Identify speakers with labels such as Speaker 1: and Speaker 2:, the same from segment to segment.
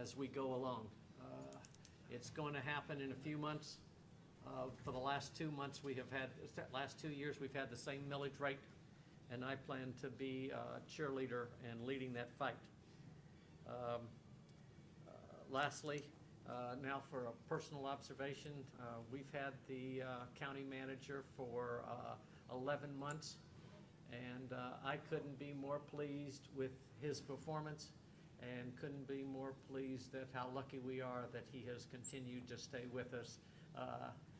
Speaker 1: as we go along. Uh, It's going to happen in a few months. Uh, For the last two months, we have had, last two years, we've had the same millage rate, and I plan to be uh, cheerleader and leading that fight. Um, uh, Lastly, uh, now for a personal observation, uh, we've had the uh, county manager for uh, 11 months, and uh, I couldn't be more pleased with his performance and couldn't be more pleased at how lucky we are that he has continued to stay with us uh,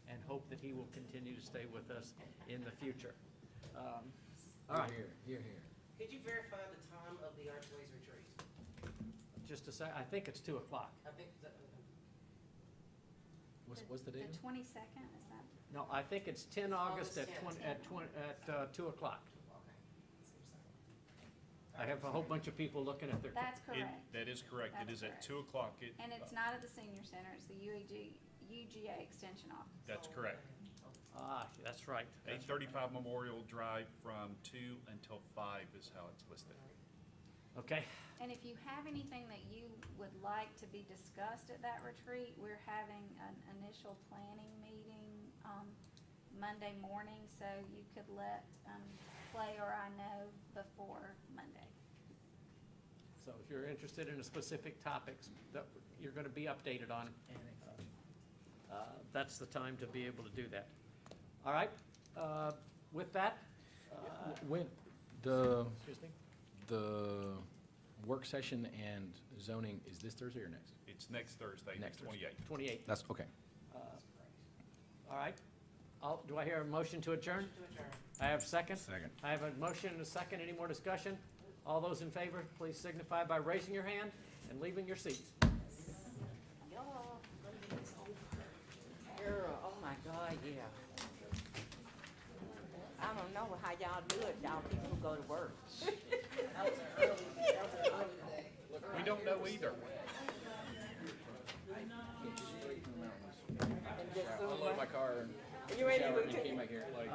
Speaker 1: and hope that he will continue to stay with us in the future. Um, All right,
Speaker 2: Here, here, here.
Speaker 3: Could you verify the time of the Archways retreat?
Speaker 1: just a sec, I think it's 2 o'clock.
Speaker 3: I think, the-
Speaker 2: What's, what's the date?
Speaker 4: The twenty-second, is that?
Speaker 1: No, I think it's 10 August at 20,
Speaker 3: August
Speaker 4: 10.
Speaker 1: at 20, at uh, 2 o'clock.
Speaker 3: okay. Seems like-
Speaker 1: I have a whole bunch of people looking at their.
Speaker 4: That's
Speaker 5: It-
Speaker 4: correct.
Speaker 5: That is correct. It
Speaker 4: That's
Speaker 5: is at
Speaker 4: correct.
Speaker 5: two o'clock. It-
Speaker 4: And it's not at the senior center, it's the UAG, UGA Extension Office.
Speaker 5: That's
Speaker 3: So-
Speaker 5: correct.
Speaker 1: Ah, that's right.
Speaker 5: Eight
Speaker 1: That's-
Speaker 5: thirty-five Memorial Drive from two until five is how it's listed.
Speaker 1: Okay,
Speaker 4: And if you have anything that you would like to be discussed at that retreat, we're having an initial planning meeting, um, Monday morning, so you could let, um, Clay or I know before Monday.
Speaker 1: so if you're interested in a specific topics that you're going to be updated on, uh, that's the time to be able to do that. All right, uh, with that, uh,
Speaker 2: When, the,
Speaker 1: excuse me,
Speaker 2: the work session and zoning, is this Thursday or next?
Speaker 5: It's next Thursday, the
Speaker 2: Next Thursday.
Speaker 5: twenty-eighth.
Speaker 1: 28.
Speaker 2: That's, okay.
Speaker 1: uh, All right. I'll- Do I hear a motion to adjourn?
Speaker 3: To adjourn.
Speaker 1: I have second?
Speaker 2: Second.
Speaker 1: I have a motion and a second. Any more discussion? All those in favor, please signify by raising your hand and leaving your seats.
Speaker 3: Y'all, gonna be this over. Girl, oh my God, yeah.
Speaker 6: I don't know how y'all do it, y'all people who go to work.
Speaker 3: That was an early, that was an early day.
Speaker 5: We don't know either.
Speaker 2: I loaded my car and
Speaker 6: You ready to
Speaker 2: showered
Speaker 6: move
Speaker 2: and came
Speaker 6: to,
Speaker 2: back here.